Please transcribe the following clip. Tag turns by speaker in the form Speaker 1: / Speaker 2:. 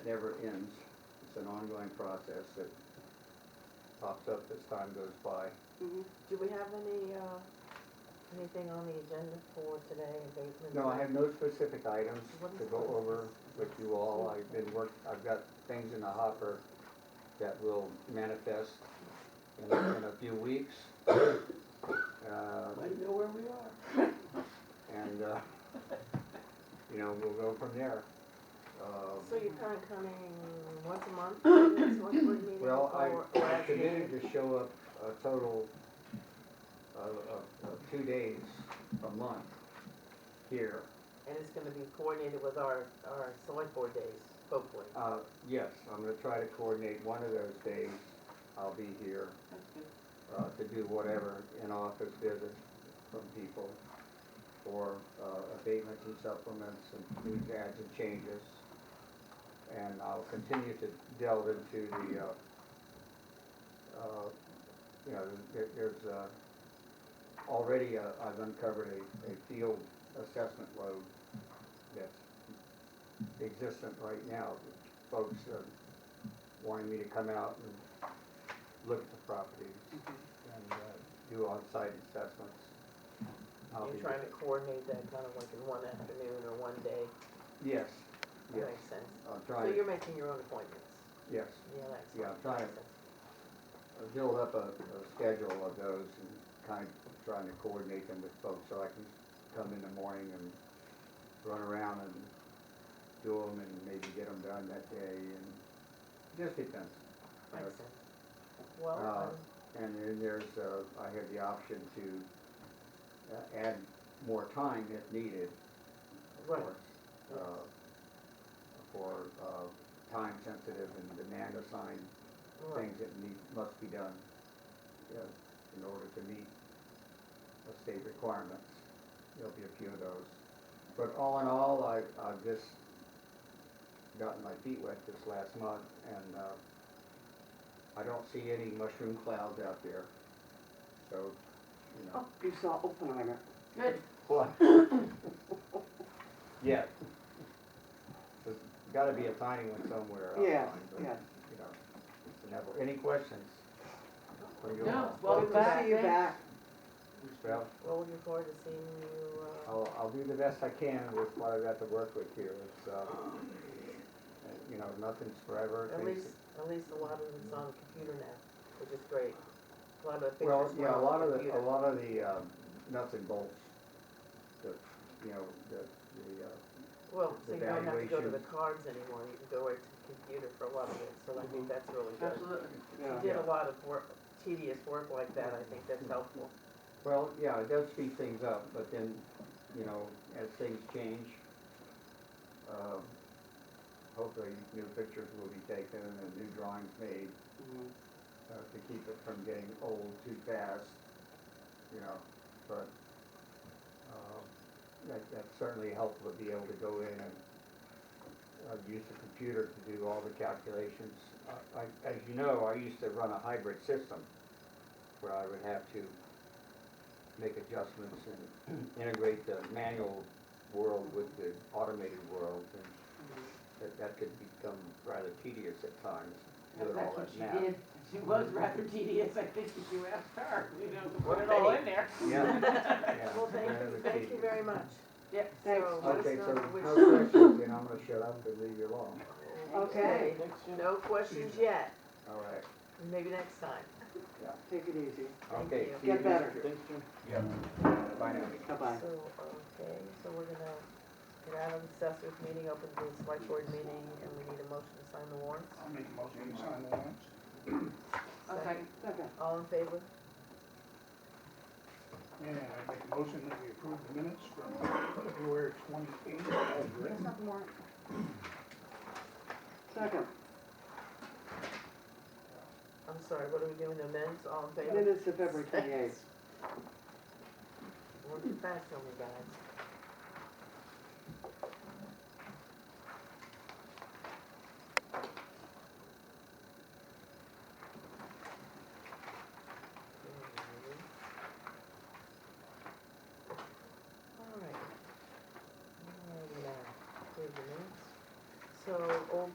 Speaker 1: never ends. It's an ongoing process that pops up as time goes by.
Speaker 2: Mhm.
Speaker 3: Do we have any, uh, anything on the agenda for today, abatement?
Speaker 1: No, I have no specific items to go over with you all. I've been work, I've got things in the hopper that will manifest in, a- in a few weeks. Uh,
Speaker 2: I know where we are.
Speaker 1: And, uh, you know, we'll go from there. Um,
Speaker 3: So you're kind of coming once a month, to this select board meeting?
Speaker 1: Well,
Speaker 3: or-
Speaker 1: I,
Speaker 3: or
Speaker 1: I
Speaker 3: as
Speaker 1: committed
Speaker 3: needed?
Speaker 1: to show up a total of, of, of two days a month here.
Speaker 3: And it's gonna be coordinated with our, our select board days, hopefully.
Speaker 1: Uh, yes, I'm gonna try to coordinate one of those days. I'll be here,
Speaker 2: That's good.
Speaker 1: uh, to do whatever, in-office visits from people or, uh, abatements and supplements and news adds and changes. And I'll continue to delve into the, uh, uh, you know, there, there's, uh, already, uh, I've uncovered a, a field assessment load that's existent right now. Folks are wanting me to come out and look at the properties and, uh, do on-site assessments. I'll be-
Speaker 3: You're trying to coordinate that kind of like in one afternoon or one day,
Speaker 1: Yes, yes,
Speaker 3: that makes sense.
Speaker 1: I'm
Speaker 3: So
Speaker 1: trying,
Speaker 3: you're making your own appointments,
Speaker 1: yes,
Speaker 3: yeah, that's.
Speaker 1: Yeah, I'm trying to-
Speaker 3: makes sense.
Speaker 1: I'll build up a, a schedule of those and kind of trying to coordinate them with folks so I can come in the morning and run around and do them and maybe get them done that day and just depends.
Speaker 3: Makes sense. Well,
Speaker 1: Uh,
Speaker 3: um,
Speaker 1: And then there's, uh, I have the option to uh, add more time if needed, of
Speaker 3: Right.
Speaker 1: course. uh, For, uh, time sensitive and demand assigned
Speaker 3: right.
Speaker 1: things that need, must be done, you know, in order to meet the state requirements. There'll be a few of those. But all in all, I, I've just gotten my feet wet this last month, and, uh, I don't see any mushroom clouds out there, so, you know.
Speaker 2: Oh, you saw Oppenheimer. Good.
Speaker 1: What? Yeah. There's gotta be a tiny one somewhere. I'll
Speaker 2: Yes,
Speaker 1: find, but,
Speaker 2: yes.
Speaker 1: You know, it's inevitable. Any questions? for you
Speaker 4: No,
Speaker 1: all?
Speaker 4: well,
Speaker 2: Good to
Speaker 4: back.
Speaker 2: see you back.
Speaker 1: Well,
Speaker 3: Well, looking forward to seeing you, uh,
Speaker 1: I'll, I'll do the best I can with what I've got to work with here. It's, uh, you know, nothing's forever.
Speaker 3: at
Speaker 1: Things-
Speaker 3: least, at least a lot of it's on the computer now, which is great. A lot of the pictures were on
Speaker 1: Well,
Speaker 3: the
Speaker 1: yeah, a lot of the,
Speaker 3: computer.
Speaker 1: a lot of the, um, nuts and bolts, the, you know, the, the, uh,
Speaker 3: Well, so
Speaker 1: the
Speaker 3: you don't have to go to the
Speaker 1: valuations.
Speaker 3: cards anymore, you can go right to the computer for a lot of it, so I
Speaker 1: Mhm.
Speaker 3: think that's really good.
Speaker 4: Absolutely.
Speaker 2: Yeah.
Speaker 3: You did a lot of work, tedious work like that, I think that's helpful.
Speaker 1: Well, yeah, it does speed things up, but then, you know, as things change, um, hopefully new pictures will be taken and new drawings made
Speaker 2: Mhm.
Speaker 1: uh, to keep it from getting old too fast, you know, but um, that, that's certainly helpful to be able to go in and uh, use the computer to do all the calculations. I- I, as you know, I used to run a hybrid system where I would have to make adjustments and integrate the manual world with the automated world, and
Speaker 4: Mm-hmm.
Speaker 1: that, that could become rather tedious at times, doing all
Speaker 4: That's what
Speaker 1: that
Speaker 4: she
Speaker 1: math.
Speaker 4: did. She was rather tedious, I think, if you asked her, you know, to put
Speaker 3: Well,
Speaker 4: it all in there.
Speaker 1: Yeah, yeah.
Speaker 3: Well, thank
Speaker 1: that
Speaker 3: you,
Speaker 1: would
Speaker 3: thank
Speaker 1: be-
Speaker 3: you very much.
Speaker 4: Yeah.
Speaker 2: Thanks.
Speaker 3: So let us
Speaker 1: Okay, so
Speaker 3: know which-
Speaker 1: no questions, then I'm gonna shut up and leave you alone.
Speaker 2: Okay.
Speaker 3: No questions yet,
Speaker 1: All right,
Speaker 3: maybe next time.
Speaker 2: Take it easy.
Speaker 3: Thank
Speaker 1: okay.
Speaker 3: you.
Speaker 1: see you
Speaker 2: Get better.
Speaker 1: next year. Bye now.
Speaker 2: Bye-bye.
Speaker 3: So, okay, so we're gonna get out of the assessors meeting, open to the select board meeting, and we need a motion to sign the warrants.
Speaker 5: I'll make a motion to sign the warrants.
Speaker 4: Okay.
Speaker 2: Okay.
Speaker 3: All in favor?
Speaker 5: And I make a motion that we approve the minutes from February twenty-eighth as written.
Speaker 2: Second,
Speaker 3: I'm sorry, what are we doing, amends, all in favor?
Speaker 2: minutes of February twenty-eighth.
Speaker 3: We're too fast on you guys. uh, oh,